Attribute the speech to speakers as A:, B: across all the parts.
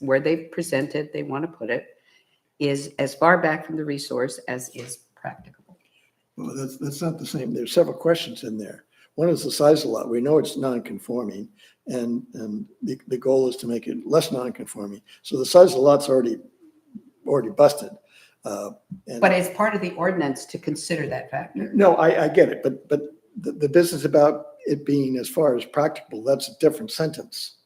A: where they've presented they want to put it is as far back from the resource as is practicable.
B: Well, that's, that's not the same. There's several questions in there. One is the size of the lot. We know it's non-conforming and, and the, the goal is to make it less non-conforming. So the size of the lot's already, already busted. Uh, and-
A: But it's part of the ordinance to consider that factor.
B: No, I, I get it, but, but the, the business about it being as far as practical, that's a different sentence.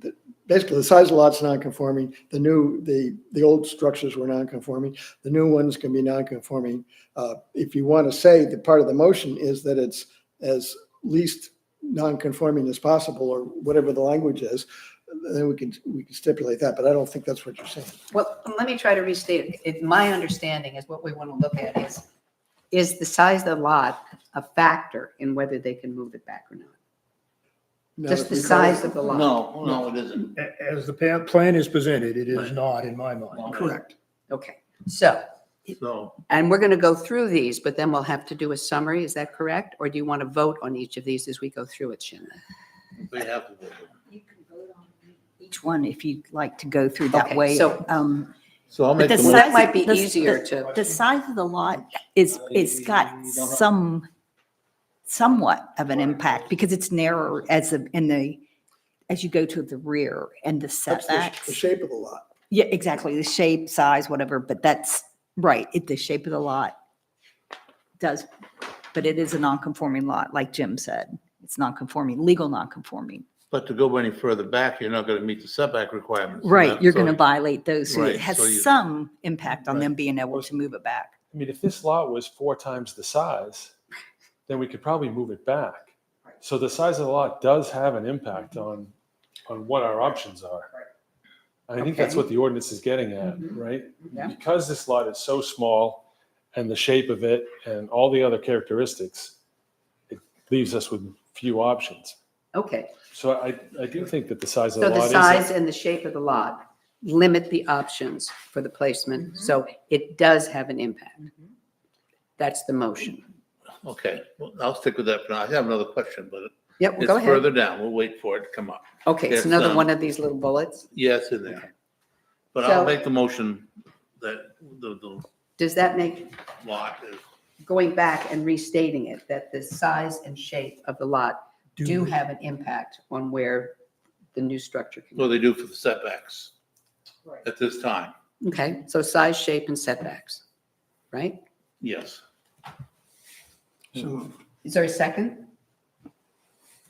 B: The- Basically, the size of the lot's non-conforming, the new, the, the old structures were non-conforming, the new ones can be non-conforming. Uh, If you want to say that part of the motion is that it's as least non-conforming as possible, or whatever the language is, then we can, we can stipulate that, but I don't think that's what you're saying.
A: Well, let me try to restate it. it. My understanding is what we want to look at is, is the size of the lot a factor in whether they can move it back or not?
B: Now,
A: Just
B: if
A: the
B: we call it-
A: size of the lot?
C: No, no, it isn't.
D: A- As the pa- plan is presented, it is not in my mind.
B: Correct.
A: Okay, so,
D: So
A: and we're going to go through these, but then we'll have to do a summary. Is that correct? Or do you want to vote on each of these as we go through it, Shannon?
C: They have to. vote.
E: You can vote on Each one, if you'd like to go through that
A: Okay,
E: way.
A: so-
E: um,
C: So I'll
E: but
C: make
E: the
C: the
A: Well,
C: motion.
A: that
E: size-
A: might be
E: the-
A: easier
E: the-
A: to,
E: The size of the lot is, it's got some, somewhat of an impact because it's narrower as the, in the, as you go to the rear and the
B: That's the sh- the
E: setbacks.
B: shape of the lot.
E: Yeah, exactly. The shape, size, whatever, but that's, right, it, the shape of the lot does, but it is a non-conforming lot, like Jim said. It's non-conforming, legal non-conforming.
C: But to go any further back, you're not going to meet the setback requirements.
E: Right, you're going to
C: buy.
E: violate those, so
C: Right,
E: it has
C: so you-
E: some impact on
C: Right.
E: them being able to move it back.
F: I mean, if this lot was four times the size, then we could probably move it back. So the size of the lot does have an impact
A: Mm-hmm.
F: on, on what our options are. I think that's
A: Okay.
F: what the ordinance is getting at,
A: Mhm.
F: right?
A: Yeah.
F: Because this lot is so small and the shape of it and all the other characteristics, it leaves us with few options.
A: okay.
F: So I, I do think that the size of
A: So
F: the
A: the
F: lot is,
A: size and the shape of the lot limit the options for the placement, so it does have an impact. That's the motion.
C: Okay, well, I'll stick with that for now. I have another question, but
A: Yep, go
C: it's
A: ahead.
C: further down. We'll wait for it to come up.
A: Okay, it's
C: It's,
A: another
C: um,
A: one of these little bullets.
C: Yes, in there. But I'll
A: So-
C: make the motion that the, the
A: Does that make,
C: lot is,
A: going back and restating it, that the size and shape of the lot do have an impact on where the new structure can
C: what
A: go?
C: they do for the setbacks
E: Right.
C: at this time.
A: Okay, so size, shape, and setbacks, right?
C: Yes.
B: So
A: Is there a second?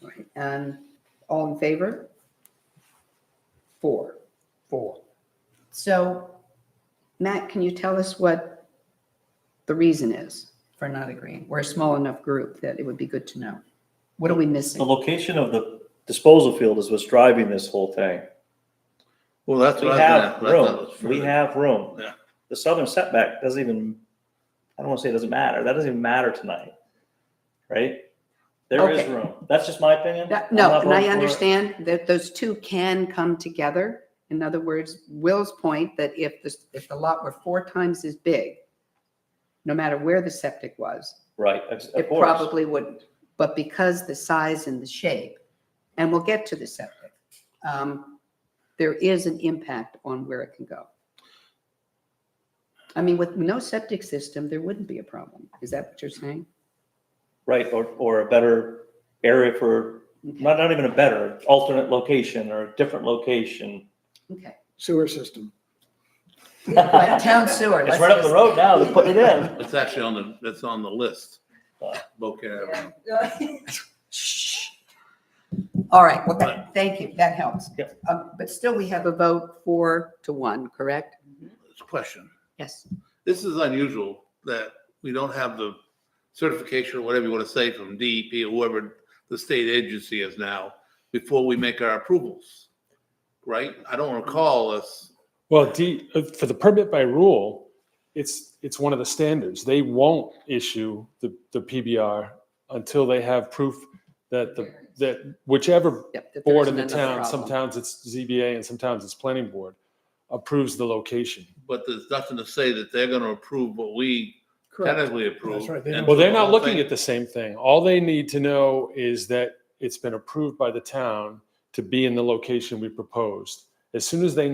A: All right, And all in favor? Four.
D: four.
A: So, Matt, can you tell us what the reason is for not agreeing? We're a small enough group that it would be good to know. What are we
G: The
A: missing?
G: location of the disposal field is what's driving this whole thing.
C: Well, that's
G: We
C: what I
G: have
C: was gonna. I thought
G: room,
C: it was
G: we
C: further.
G: have room.
C: Yeah.
G: The southern setback doesn't even, I don't want to say it doesn't matter, that doesn't even matter tonight, right? There is
A: Okay.
G: room, that's just my opinion.
A: That-
G: I'm
A: No,
G: not
A: and I
G: voting for it.
A: understand that those two can come together. In other words, Will's point that if the, if the lot were four times as big, no matter where the septic was,
G: Right, of of
A: It
G: course.
A: probably wouldn't, but because the size and the shape, and we'll get to the septic, um, there is an impact on where it can go. I mean, with no septic system, there wouldn't be a problem. Is that what you're saying?
G: Right, or, or a better area for, not, not even a better, alternate location or a different location.
A: Okay.
B: sewer system.
A: But town sewer.
G: It's
A: let's
G: right up the
A: just-
G: road now, they're putting it in.
C: It's actually on the, that's on the list. Boca Avenue.
A: Shh. All right, well, that- thank you. That helps.
G: Yep.
A: Um, But still, we have a vote four to one, correct?
C: It's a Question.
A: Yes.
C: This is unusual that we don't have the certification or whatever you want to say from DEP or whoever the state agency is now before we make our approvals, right? I don't recall us,
F: well, D, uh, for the permit by rule, it's, it's one of the standards. They won't issue the, the PBR until they have proof that the, that whichever
A: Yep, that there
F: board in the
A: isn't another
F: town,
A: problem.
F: sometimes it's ZBA and sometimes it's planning board, approves the location.
C: but there's nothing to say that they're going to approve what we tentatively approve.
D: That's right, they
C: And
D: don't-
F: Well, they're
C: so the
F: not
C: whole
F: looking
C: thing-
F: at the same thing. All they need to know is that it's been approved by the town to be in the location we proposed. As soon as they